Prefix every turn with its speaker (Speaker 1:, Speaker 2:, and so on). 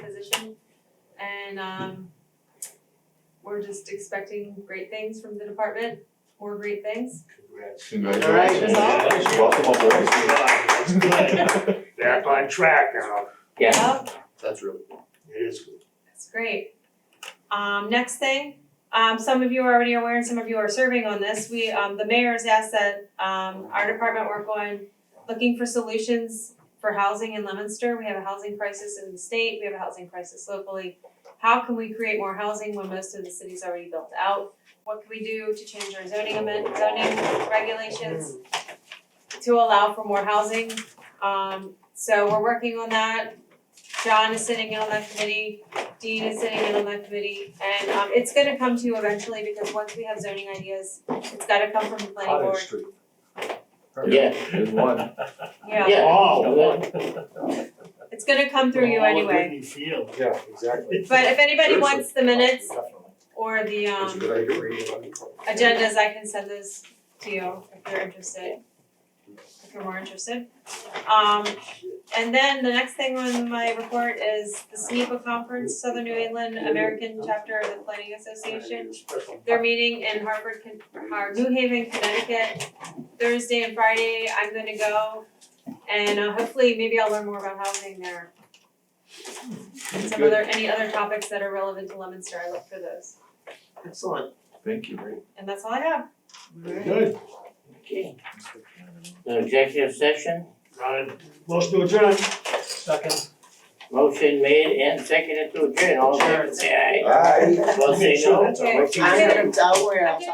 Speaker 1: and um we're just expecting great things from the department, more great things.
Speaker 2: Congrats.
Speaker 3: Congratulations.
Speaker 1: All right,
Speaker 4: that's all.
Speaker 3: Welcome aboard.
Speaker 4: That's good, that's good. Back on track now,
Speaker 1: Yep.
Speaker 3: That's really cool.
Speaker 4: it is good.
Speaker 1: That's great. Um, next thing, um, some of you are already aware and some of you are serving on this. We, um, the mayor's asked that, um, our department work on looking for solutions for housing in Leominster. We have a housing crisis in the state, we have a housing crisis locally. How can we create more housing when most of the city's already built out? What can we do to change our zoning amendment, zoning regulations to allow for more housing? Um, so we're working on that. John is sitting in on that committee. Dean is sitting in on that committee and um it's gonna come to you eventually because once we have zoning ideas, it's gotta come from the planning board,
Speaker 2: Street.
Speaker 3: Yeah, there's one.
Speaker 1: yeah.
Speaker 3: Yeah.
Speaker 4: Oh, what?
Speaker 1: It's gonna come through you
Speaker 4: All at
Speaker 1: anyway.
Speaker 4: Whitney Field.
Speaker 2: Yeah, exactly.
Speaker 1: But if anybody
Speaker 2: Seriously.
Speaker 1: wants the minutes
Speaker 2: Definitely.
Speaker 1: or the
Speaker 2: It's a
Speaker 1: um
Speaker 2: good idea.
Speaker 1: agendas, I can send those to you if you're interested. If you're more interested. Um and then the next thing on my report is the SNEPA conference, Southern New England American Chapter of the Planning Association. They're meeting in Harvard, Con- or New Haven, Connecticut, Thursday and Friday, I'm gonna go. And uh, hopefully, maybe I'll learn more about housing there. And some
Speaker 3: Good.
Speaker 1: other, any other topics that are relevant to Leominster, I look for those,
Speaker 4: Excellent.
Speaker 3: Thank you.
Speaker 1: and that's all I have.
Speaker 4: Good.
Speaker 5: Okay, no executive session,
Speaker 4: Done. Motion to adjourn.
Speaker 6: Second.
Speaker 5: motion made and seconded to adjourn, all in favor, say aye.
Speaker 2: Aye.
Speaker 5: Opposed, say no.
Speaker 4: Sure, that's all right.
Speaker 1: Okay.
Speaker 5: I'm
Speaker 1: gonna
Speaker 5: tell where
Speaker 1: I'm